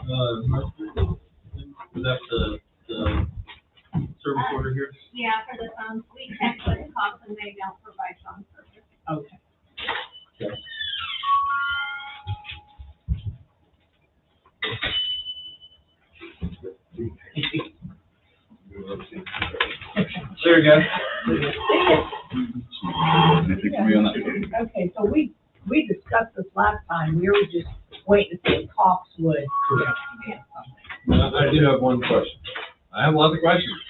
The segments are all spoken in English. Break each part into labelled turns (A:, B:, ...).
A: Uh, Mark, is that the, the service order here?
B: Yeah, for the phones, we check what it costs and they don't provide phone service.
C: Okay.
A: Sure, guys.
D: Anything for Mm-hmm. me on that?
C: Okay, so we, we discussed this last time, we were just waiting to see if Cox would.
A: Correct. I, I do have one question. I have lots of questions.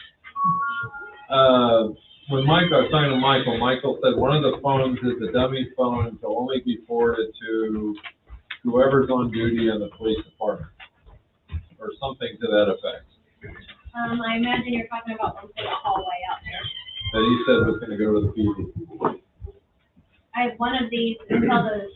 A: Uh, when Mike, I was talking to Michael, Michael said one of the phones is a dummy phone, and will only be forwarded to whoever's on duty in the police department, or something to that effect.
B: Um, I imagine you're talking about one for the hallway out there.
A: That he said was gonna go to the PD.
B: I have one of these until the,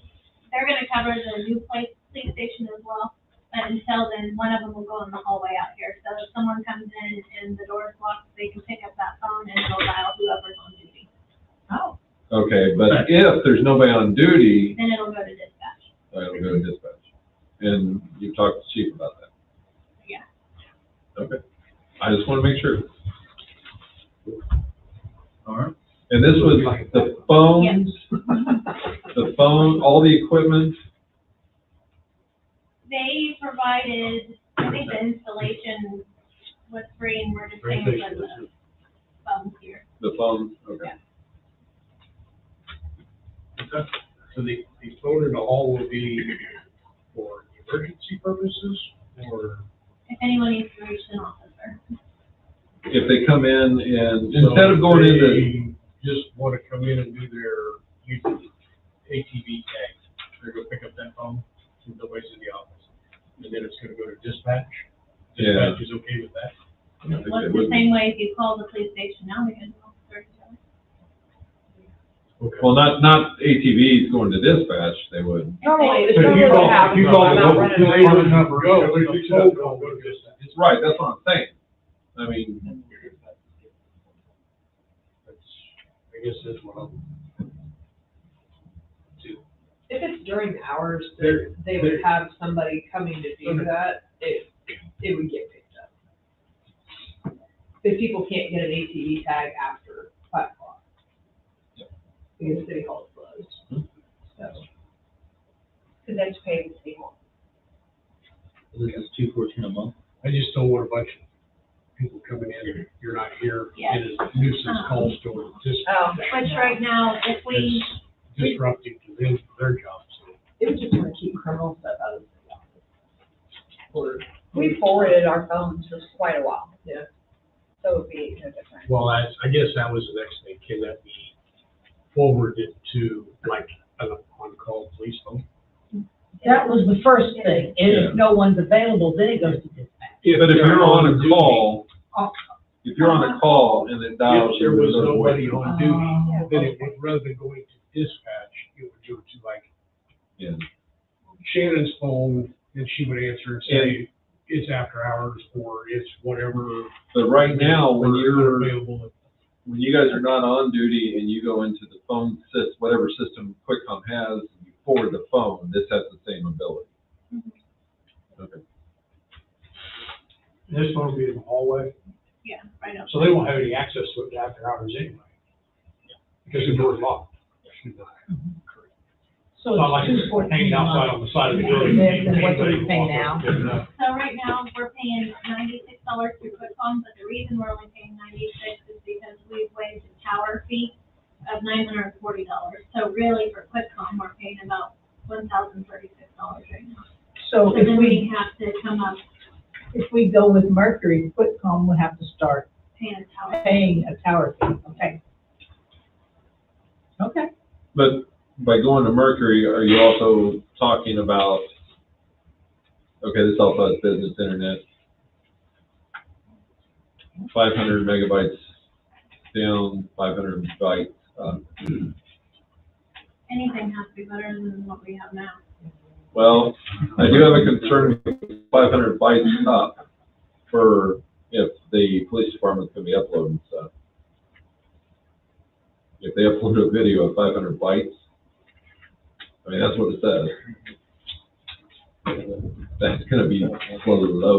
B: they're gonna cover the new police, police station as well. But until then, one of them will go in the hallway out here. So if someone comes in and the door's locked, they can pick up that phone and go dial whoever's on duty.
C: Oh,
A: Okay, but if there's nobody on duty,
B: Then it'll go to dispatch.
A: that'll go to Uh, dispatch. And you talked to chief about that.
B: Yeah.
A: Okay, I just wanna make sure.
D: All right.
A: And this was the phones, the phone, all the equipment,
B: They provided, I think the installation was free and we're just paying for the phones here.
A: the phone, okay.
E: So the, the phone in the hall will be for emergency purposes or?
B: If anyone needs to reach an officer.
A: If they come in and, instead of going into,
E: They Just want to come in and do their usual ATV tag. They're gonna pick up that phone since nobody's in the office. And then it's gonna go to dispatch.
A: Yeah.
E: Dispatch is okay with that.
A: I think they
B: Well, it's the
A: wouldn't.
B: same way if you call the police station now, they can call the officer.
A: well, not, not ATVs going to dispatch, they would.
C: normally,
B: But
C: this
B: if
C: normally
B: you
C: what
B: call-
C: happens.
E: you call
C: I'm
E: the
C: not
E: local
C: running it.
E: police- Where's the number go? Go, Where's the phone call? Go to dispatch.
A: It's right, that's what I'm saying. I mean,
E: That's, I guess that's what I'm.
C: If it's during hours, they're- they would have somebody coming to do that, it, it would get picked up. If people can't get an ATV tag after five o'clock. Because city hall is
D: Mm-hmm.
C: closed, so. Cause that's paid city hall.
F: This is two fourteen a month.
E: I just don't want a bunch of people coming in, you're not here,
B: Yeah.
E: and it's nuisance calls to
C: Oh.
B: Which right now, if we,
E: dis- disrupting to them, their jobs.
C: It was just gonna keep criminal stuff out of the office. We forwarded our phones for quite a while. Yeah. So it'd be no different.
E: Well, that's, I guess that was the next thing, can that be forwarded to like an on-call police phone?
G: That was the first thing, and
A: Yeah.
G: if no one's available, then it goes to dispatch.
A: but if you're on a call,
G: Oh.
A: if you're on a call and it dials.
E: If there was
A: you,
E: nobody on duty,
C: Yeah.
E: then it would, rather than going to dispatch, it would go to like
A: Yeah.
E: Shannon's phone, and she would answer and say, it's after hours, or it's whatever.
A: But right now, when
E: Or
A: you're,
E: Available.
A: when you guys are not on duty and you go into the phone sys, whatever system QuickCom has, you forward the phone, this has the same ability. Okay.
E: This phone will be in the hallway.
B: yeah, right now.
E: So they won't have any access to it after hours anyway. Because the door's locked.
G: So
E: Not like
G: it's two
E: it's
G: fourteen
E: hanging
G: a
E: outside
G: month.
E: on the side of the building.
C: Then- then what do we
E: Anybody can
C: pay
E: walk
C: now?
E: up and get it up.
B: So right now, we're paying ninety-six dollars through QuickFones, but the reason we're only paying ninety-six is because we've waived the tower fee of nine hundred and forty dollars. So really, for QuickFones, we're paying about one thousand thirty-six dollars right now. So
G: So if
B: then
G: we,
B: we have to come up
G: if we go with Mercury, QuickCom would have to start
B: paying a tower.
G: paying a tower fee, okay? Okay.
A: But by going to Mercury, are you also talking about, okay, this also has business internet. Five hundred megabytes down, five hundred bytes up.
B: Anything has to be better than what we have now.
A: Well, I do have a concern with five hundred bytes up for if the police department's gonna be uploading stuff. If they upload a video of five hundred bytes, I mean, that's what it says. That's gonna be for the low.